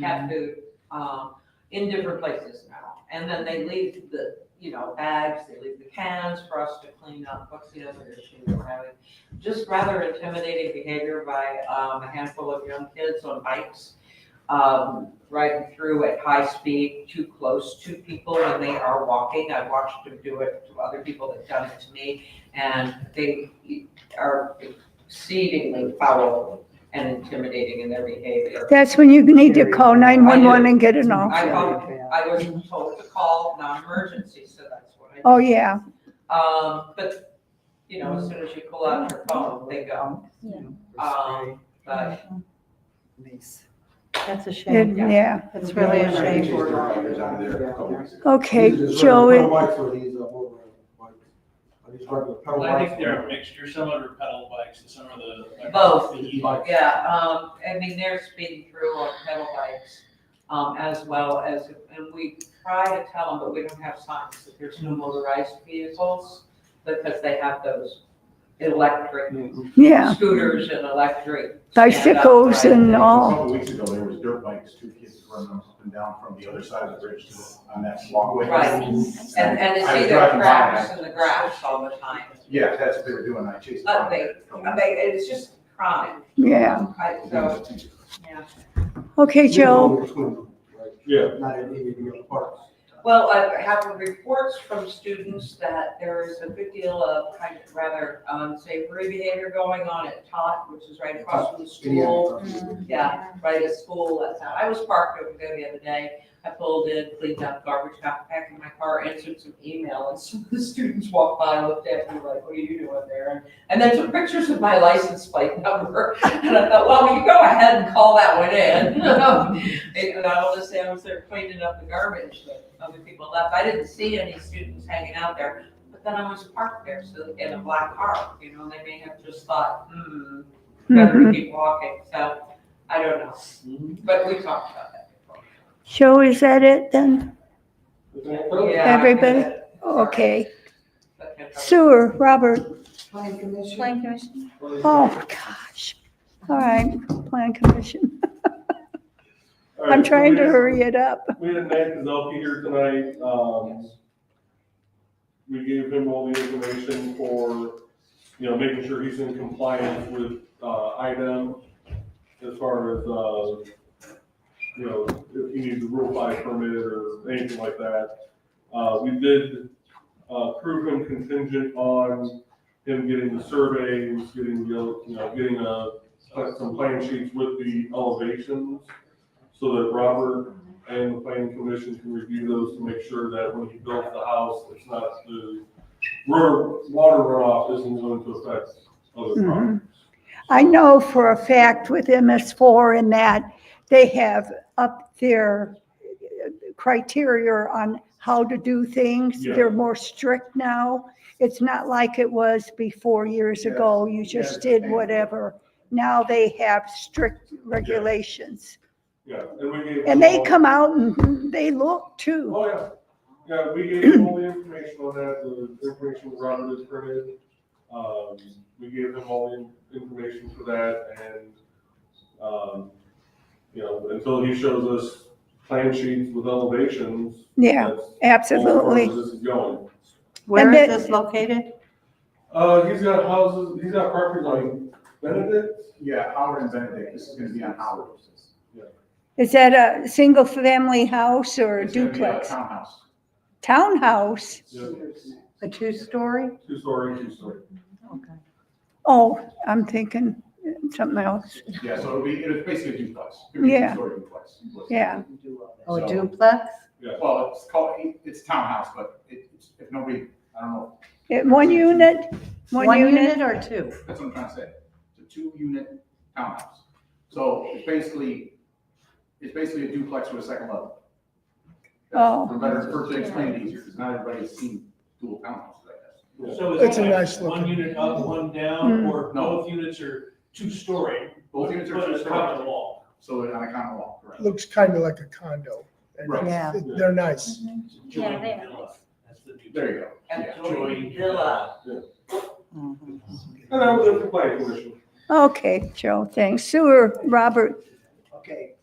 cat food, um, in different places now. And then they leave the, you know, bags, they leave the cans for us to clean up. What's the other issue we're having? Just rather intimidating behavior by, um, a handful of young kids on bikes, um, riding through at high speed, too close to people when they are walking. I've watched them do it to other people that've done it to me, and they are exceedingly foul and intimidating in their behavior. That's when you need to call 911 and get it off. I called, I was told to call non-emergency, so that's what I did. Oh, yeah. Um, but, you know, as soon as you pull out your phone, they go, um, but, That's a It- shame. Yeah. That's really a Yeah. shame. Okay, Joey, White for these, uh, over, uh, white. Are these regular pedal Well, I bikes? think they're a mixture, some are pedal bikes and some are the. Both. The e-bikes. yeah, um, I mean, they're speeding through on pedal bikes, um, as well as, and we try to tell them, but we don't have signs that there's no motorized vehicles, because they have those electric yeah. scooters and electric. Bicycles stand-up and riding. all. A couple weeks ago, there was dirt bikes, two kids running up and down from the other side of the bridge to, on that walkway. Right. And, and it's I was either driving by cracks that. in the grass all the time. Yeah, that's what they were doing, I chased. Uh, them. I mean, it's just crime. Yeah. I, so, yeah. Okay, You Joe. know, between them, right? Yeah. Not in any of your parts. Well, I have reports from students that there is a good deal of kind of rather unsavory behavior going on at Tot, which is right across from the school. mm. Yeah, right at school. That's how, I was parked over there the other day. I pulled in, cleaned up garbage, got back in my car, answered some email, and some of the students walked by, looked at me like, what are you doing there? And- And then took pictures of my license plate number. And I thought, well, you go ahead and call that one in. And I will just say I was there cleaning up the garbage that other people left. I didn't see any students hanging out there. But then I was parked there, so in a black car, you know, and they may have just thought, hmm, better to Mhm. keep walking. So I don't know. But we talked about that before. Joe, is that it then? Yeah, uh, Everybody? I get it. Okay. Okay. Sewer, Robert. Planning commission? Plan commission? Oh, gosh. All right, Plan Commission. I'm trying to hurry it up. We had Matt Gazelke here tonight, um, we gave him all the information for, you know, making sure he's in compliance with, uh, item as far as, uh, you know, if he needs a rule five permit or anything like that. Uh, we did, uh, prove him contingent on him getting the surveys, getting, the, you know, getting a, some plan sheets with the elevations so that Robert and the planning commission can review those to make sure that when he builds the house, it's not the river, water runoff isn't going to affect other Mhm. properties. I know for a fact with MS4 and that, they have up their criteria on how to do things. Yeah. They're more strict now. It's not like it was before years Yes. ago. You Yeah, just it's a did thing. whatever. Now they have strict regulations. Yeah, and we gave. And they all- come out and they look too. Oh, yeah. Yeah, we gave him all the information on that, the information Robert has printed. Um, we gave him all the in- information for that and, um, you know, until he shows us plan sheets with elevations. Yeah, that's absolutely. As far as this is going. Where then- is this located? Uh, he's got houses, he's got property on Benedict. Yeah, Howard and Benedict, this is gonna be on Howard. Is that a single-family house or a It's gonna be duplex? Townhouse. Townhouse? A two-story? Two story, two story. Okay. Oh, I'm thinking something else. Yeah, so it'll be, it's basically a duplex. It'll be a Yeah. two-story duplex. Yeah. Oh, So- duplex? Well, it's called, it's townhouse, but it- it's, if nobody, I don't know, It- Eh, One unit? One unit or two? That's what I'm trying to say. It's a two-unit townhouse. So it's basically, it's basically a duplex with a second level. Oh. For better, for to explain it easier, because not everybody's seen dual townhouses, I guess. So It's is a it nice like one looking- unit up, one down, Hmm. Mm. or No. both units are two-story? Both units are but it's common two-story, law. so they're on a common law, correct? Looks kind of like a condo. and Right. Yeah. They're nice. It's a joint villa. That's the new. There you go. And Yeah. joint villa. Mhm. And I was at the planning commission. Okay, Joe, thanks. Sewer, Robert, Okay,